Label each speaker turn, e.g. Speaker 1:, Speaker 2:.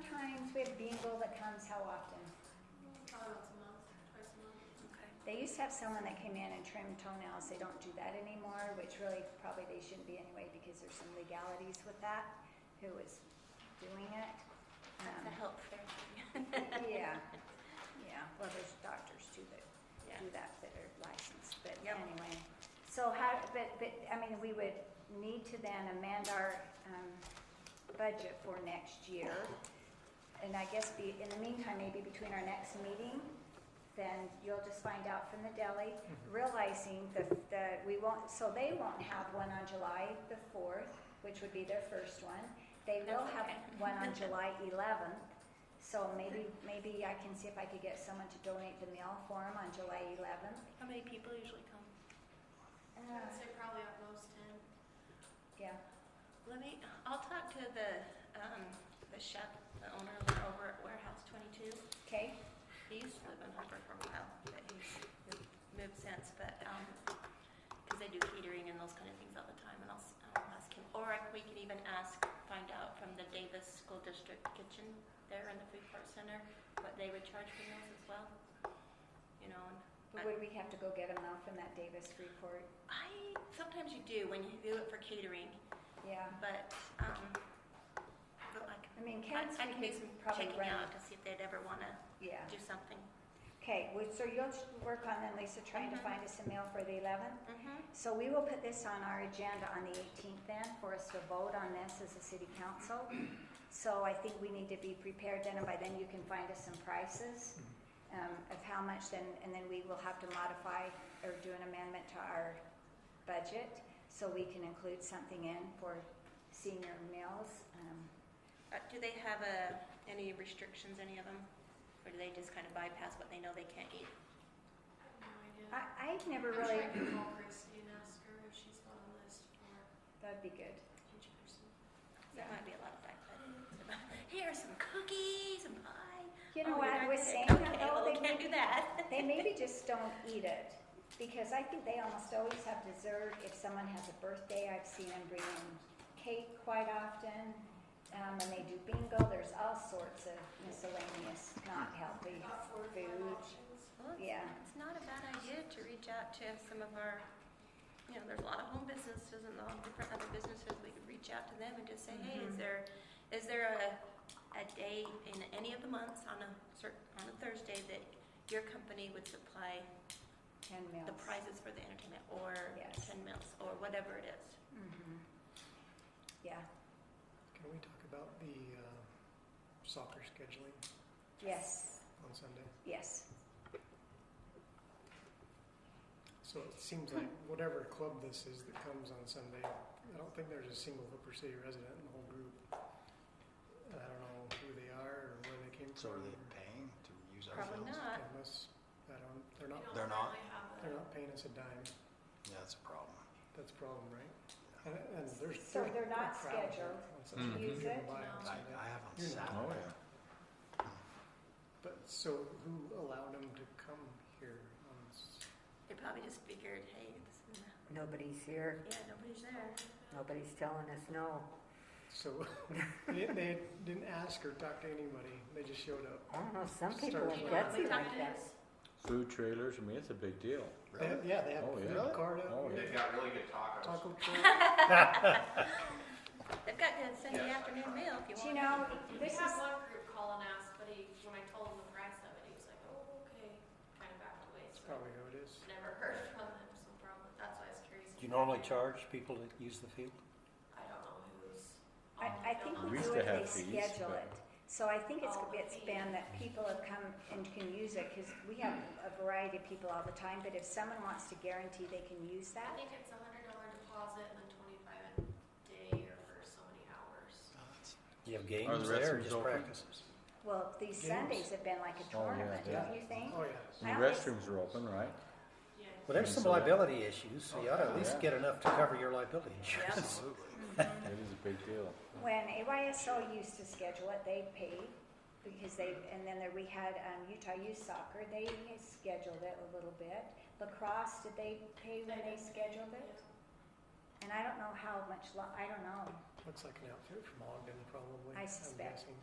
Speaker 1: We have bingo that comes how often?
Speaker 2: Probably once a month, twice a month.
Speaker 1: They used to have someone that came in and trimmed toenails. They don't do that anymore, which really probably they shouldn't be anyway because there's some legalities with that. Who is doing it?
Speaker 3: That's a
Speaker 1: Um,
Speaker 3: help fair thing.
Speaker 1: yeah, yeah. Well, there's doctors too that
Speaker 3: Yeah.
Speaker 1: do that that are licensed. But
Speaker 3: Yep.
Speaker 1: anyway, so how? But but I mean, we would need to then amend our um, budget for next year, and I guess be in the meantime, maybe between our next meeting then you'll just find out from the deli, realizing that, that we won't, so they won't have one on July the fourth, which would be their first one. They will have
Speaker 3: That's okay.
Speaker 1: one on July eleventh, so maybe, maybe I can see if I could get someone to donate the meal for them on July eleventh.
Speaker 3: How many people usually come? Uh.
Speaker 2: I'd say probably at most ten.
Speaker 1: Yeah,
Speaker 3: Let me, I'll talk to the, um, the chef, the owner of- over at Warehouse 22.
Speaker 1: okay,
Speaker 3: He used to live in Hopper for a while, but he's moved since, but, um 'cause because they do catering and those kind of things all the time, and I'll, s- I'll ask him. Or I- we can even ask, find out from the Davis School District Kitchen there in the food court center, what they would charge for meals as well. You know, and
Speaker 1: but would we have to go get them out from that Davis report?
Speaker 3: I, sometimes you do when you do it for catering,
Speaker 1: Yeah,
Speaker 3: but, um, but like,
Speaker 1: I mean,
Speaker 3: I,
Speaker 1: Ken's,
Speaker 3: I can
Speaker 1: we
Speaker 3: do
Speaker 1: could
Speaker 3: some
Speaker 1: probably
Speaker 3: checking
Speaker 1: run,
Speaker 3: out to see if they'd ever wanna
Speaker 1: yeah.
Speaker 3: do something.
Speaker 1: Okay, well, so you'll just work on then, Lisa, trying to
Speaker 3: Mhm.
Speaker 1: find us a meal for the eleventh?
Speaker 3: Mm-hmm.
Speaker 1: So we will put this on our agenda on the 18th then, for us to vote on this as a city council. So I think we need to be prepared then, and by then you can find us some prices um, of how much then, and then we will have to modify or do an amendment to our budget, so we can include something in for senior meals. um,
Speaker 3: Uh, do they have a, any restrictions, any of them? Or do they just kind of bypass what they know they can't eat?
Speaker 2: I have no idea.
Speaker 1: I, I've never
Speaker 2: I'm sure
Speaker 1: really,
Speaker 2: I can call Christie and ask her if she's got a list for
Speaker 1: that'd be good.
Speaker 2: each person.
Speaker 3: That might be a lot of backpedaling. Here are some cookies, some pie.
Speaker 1: You
Speaker 3: Oh,
Speaker 1: know
Speaker 3: you're
Speaker 1: what,
Speaker 3: not
Speaker 1: I
Speaker 3: gonna
Speaker 1: was
Speaker 3: say,
Speaker 1: saying that
Speaker 3: Okay,
Speaker 1: though,
Speaker 3: well,
Speaker 1: they
Speaker 3: we can't do that.
Speaker 1: They maybe just don't eat it, because I think they almost always have dessert. If someone has a birthday, I've seen them bring in cake quite often. Um, and they do bingo, there's all sorts of miscellaneous, not healthy
Speaker 2: About four or five
Speaker 1: food.
Speaker 2: options.
Speaker 3: Well, it's-
Speaker 1: Yeah.
Speaker 3: It's not a bad idea to reach out to some of our, you know, there's a lot of home businesses and a lot of different other businesses. We could reach out to them and just say, hey,
Speaker 1: Mhm.
Speaker 3: is there, is there a, a day in any of the months on a cer- on a Thursday that your company would supply
Speaker 1: Ten meals.
Speaker 3: the prizes for the entertainment or
Speaker 1: Yes.
Speaker 3: ten meals or whatever it is?
Speaker 1: Mhm. Yeah,
Speaker 4: Can we talk about the uh, soccer scheduling
Speaker 1: yes,
Speaker 4: on Sunday?
Speaker 1: yes.
Speaker 4: So it seems like
Speaker 1: Hmm.
Speaker 4: whatever club this is that comes on Sunday, I don't think there's a single Hooper City resident in the whole group. I don't know who they are or where they came
Speaker 5: So
Speaker 4: from.
Speaker 5: are they paying to use our
Speaker 3: Probably
Speaker 5: fields?
Speaker 1: Uh,
Speaker 3: not.
Speaker 4: Unless, I don't, they're
Speaker 2: We
Speaker 4: not,
Speaker 2: don't
Speaker 5: They're not?
Speaker 2: really have a-
Speaker 4: they're not paying us a dime.
Speaker 5: Yeah, that's a problem.
Speaker 4: That's a problem, right? And, and there's.
Speaker 1: So
Speaker 4: there's
Speaker 1: they're
Speaker 4: a
Speaker 1: not
Speaker 4: crowd there
Speaker 1: scheduled
Speaker 4: on Sunday.
Speaker 1: to
Speaker 4: You
Speaker 1: use
Speaker 4: can
Speaker 1: it?
Speaker 4: buy
Speaker 2: No.
Speaker 4: on
Speaker 5: I,
Speaker 4: Saturday.
Speaker 5: I have on
Speaker 4: You're not-
Speaker 5: Saturday.
Speaker 4: But so who allowed them to come here on, s-
Speaker 3: They probably just figured, hey, this is,
Speaker 6: Nobody's here,
Speaker 3: yeah, nobody's there.
Speaker 6: nobody's telling us no.
Speaker 4: so they, they didn't ask or talk to anybody, they just showed up.
Speaker 6: I don't know, some people
Speaker 4: Start
Speaker 6: are
Speaker 2: Do you know what
Speaker 6: gutsy
Speaker 2: the
Speaker 6: like
Speaker 2: time
Speaker 6: that.
Speaker 2: is?
Speaker 7: Food trailers, I mean, it's a big deal.
Speaker 4: They have, yeah, they have
Speaker 7: Oh,
Speaker 4: a
Speaker 7: yeah.
Speaker 4: food cart
Speaker 7: Oh,
Speaker 4: out,
Speaker 7: yeah.
Speaker 8: They've got really good tacos.
Speaker 4: taco truck.
Speaker 3: They've got the Sunday
Speaker 8: Yes, I
Speaker 3: afternoon
Speaker 8: tried.
Speaker 3: meal if you
Speaker 1: Do you
Speaker 3: want.
Speaker 1: know,
Speaker 2: We
Speaker 1: this is,
Speaker 2: had one group call and ask, but he, when I told him the price of it, he was like, oh, okay, kind of backed away,
Speaker 4: That's
Speaker 2: so
Speaker 4: probably who it is.
Speaker 2: never heard from them, so probably, that's why I was curious.
Speaker 9: Do you normally charge people that use the field?
Speaker 2: I don't know who's.
Speaker 1: I, I think
Speaker 7: Oh, We
Speaker 1: we
Speaker 7: used
Speaker 1: do it,
Speaker 7: to
Speaker 1: they
Speaker 7: have fees,
Speaker 1: schedule
Speaker 7: but-
Speaker 1: it. So I think it's,
Speaker 2: Oh, the
Speaker 1: it's
Speaker 2: fees.
Speaker 1: been that people have come and can use it, because we have a variety of people all the time, but if someone wants to guarantee they can use
Speaker 2: I
Speaker 1: that,
Speaker 2: think it's a hundred dollar deposit and then twenty-five a day or for so many hours.
Speaker 5: Oh,
Speaker 9: Do you have games
Speaker 7: Are the
Speaker 9: there or
Speaker 7: restrooms
Speaker 9: just
Speaker 7: open?
Speaker 9: practices?
Speaker 1: well, these
Speaker 4: Games.
Speaker 1: Sundays have been like a
Speaker 7: Oh, yeah,
Speaker 1: tournament,
Speaker 7: yeah.
Speaker 1: don't you think?
Speaker 4: Oh, yeah.
Speaker 7: And the restrooms are open, right?
Speaker 2: Yeah.
Speaker 9: Well, there's some
Speaker 7: So-
Speaker 9: liability issues, so you ought to at least
Speaker 7: Yeah.
Speaker 9: get enough to cover your liability insurance.
Speaker 5: Absolutely.
Speaker 7: It is a big deal.
Speaker 1: Mm-hmm. When AYSO used to schedule it, they paid, because they, and then there, we had, um, Utah Youth Soccer, they scheduled it a little bit. Lacrosse, did they pay when they scheduled it? And I don't know how much lo- I don't know.
Speaker 4: Looks like an outfit from Ogden, probably.
Speaker 1: I
Speaker 4: I'm
Speaker 1: suspect.
Speaker 4: guessing.